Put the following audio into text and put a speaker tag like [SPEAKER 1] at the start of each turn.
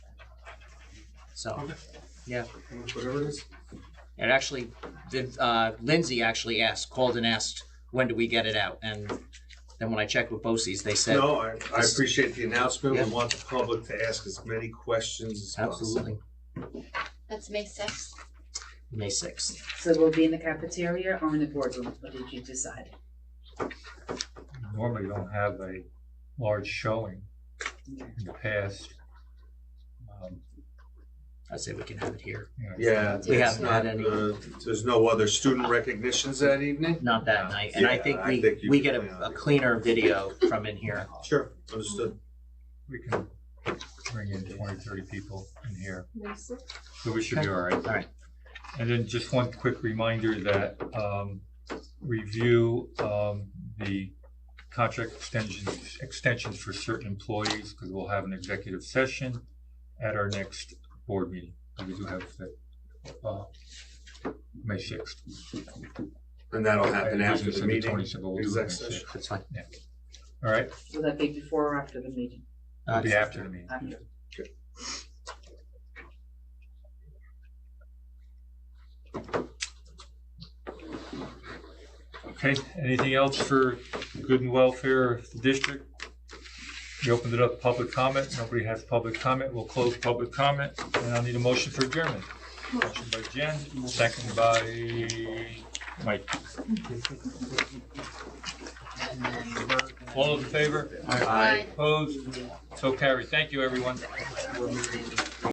[SPEAKER 1] So
[SPEAKER 2] Okay.
[SPEAKER 1] Yeah.
[SPEAKER 2] Whatever it is.
[SPEAKER 1] it actually, the, uh, Lindsay actually asked, called and asked, when do we get it out? And then when I checked with BOCES, they said,
[SPEAKER 2] No, I, I appreciate the announcement.
[SPEAKER 1] Yeah.
[SPEAKER 2] We want the public to ask as many questions as possible.
[SPEAKER 1] absolutely,
[SPEAKER 3] That's May sixth.
[SPEAKER 1] May sixth.
[SPEAKER 4] So we'll be in the cafeteria or in the boardroom, what did you decide?
[SPEAKER 5] normally don't have a large showing
[SPEAKER 4] Yeah.
[SPEAKER 5] in the past. Um,
[SPEAKER 1] I say we can have it here,
[SPEAKER 5] you know,
[SPEAKER 2] Yeah.
[SPEAKER 3] We
[SPEAKER 2] it's
[SPEAKER 1] haven't had
[SPEAKER 2] not,
[SPEAKER 1] any.
[SPEAKER 2] uh, There's no other student recognitions that evening?
[SPEAKER 1] not that night. And I
[SPEAKER 2] Yeah,
[SPEAKER 1] think
[SPEAKER 2] I
[SPEAKER 1] we,
[SPEAKER 2] think you
[SPEAKER 1] we
[SPEAKER 2] can
[SPEAKER 1] get
[SPEAKER 2] plan
[SPEAKER 1] a
[SPEAKER 2] on
[SPEAKER 1] a
[SPEAKER 2] it.
[SPEAKER 1] cleaner video from in here.
[SPEAKER 2] Sure, understood.
[SPEAKER 5] We can bring in 20, 30 people in here,
[SPEAKER 3] May sixth.
[SPEAKER 5] so we should be all right. All
[SPEAKER 1] right.
[SPEAKER 5] And then just one quick reminder that, um, review, um, the contract extensions, extensions for certain employees, because we'll have an executive session at our next board meeting. And We do have, uh, May sixth.
[SPEAKER 2] And that'll happen
[SPEAKER 5] I-
[SPEAKER 2] after
[SPEAKER 5] it's
[SPEAKER 2] the
[SPEAKER 5] on the
[SPEAKER 2] meeting.
[SPEAKER 5] 20th, but we'll do it
[SPEAKER 2] exec
[SPEAKER 5] May
[SPEAKER 2] session.
[SPEAKER 5] 6th.
[SPEAKER 1] That's fine.
[SPEAKER 5] All right,
[SPEAKER 4] Will that be before or after the meeting?
[SPEAKER 5] it'll be
[SPEAKER 1] Uh,
[SPEAKER 5] after the meeting.
[SPEAKER 4] After.
[SPEAKER 5] Okay, anything else for good and welfare of the district? We opened it up, to public comment, nobody has public comment, we'll close public comment, and I'll need a motion for adjournment. Motion by Jen, second by Mike. All those in favor?
[SPEAKER 2] Aye.
[SPEAKER 5] Opposed? So carried, thank you, everyone.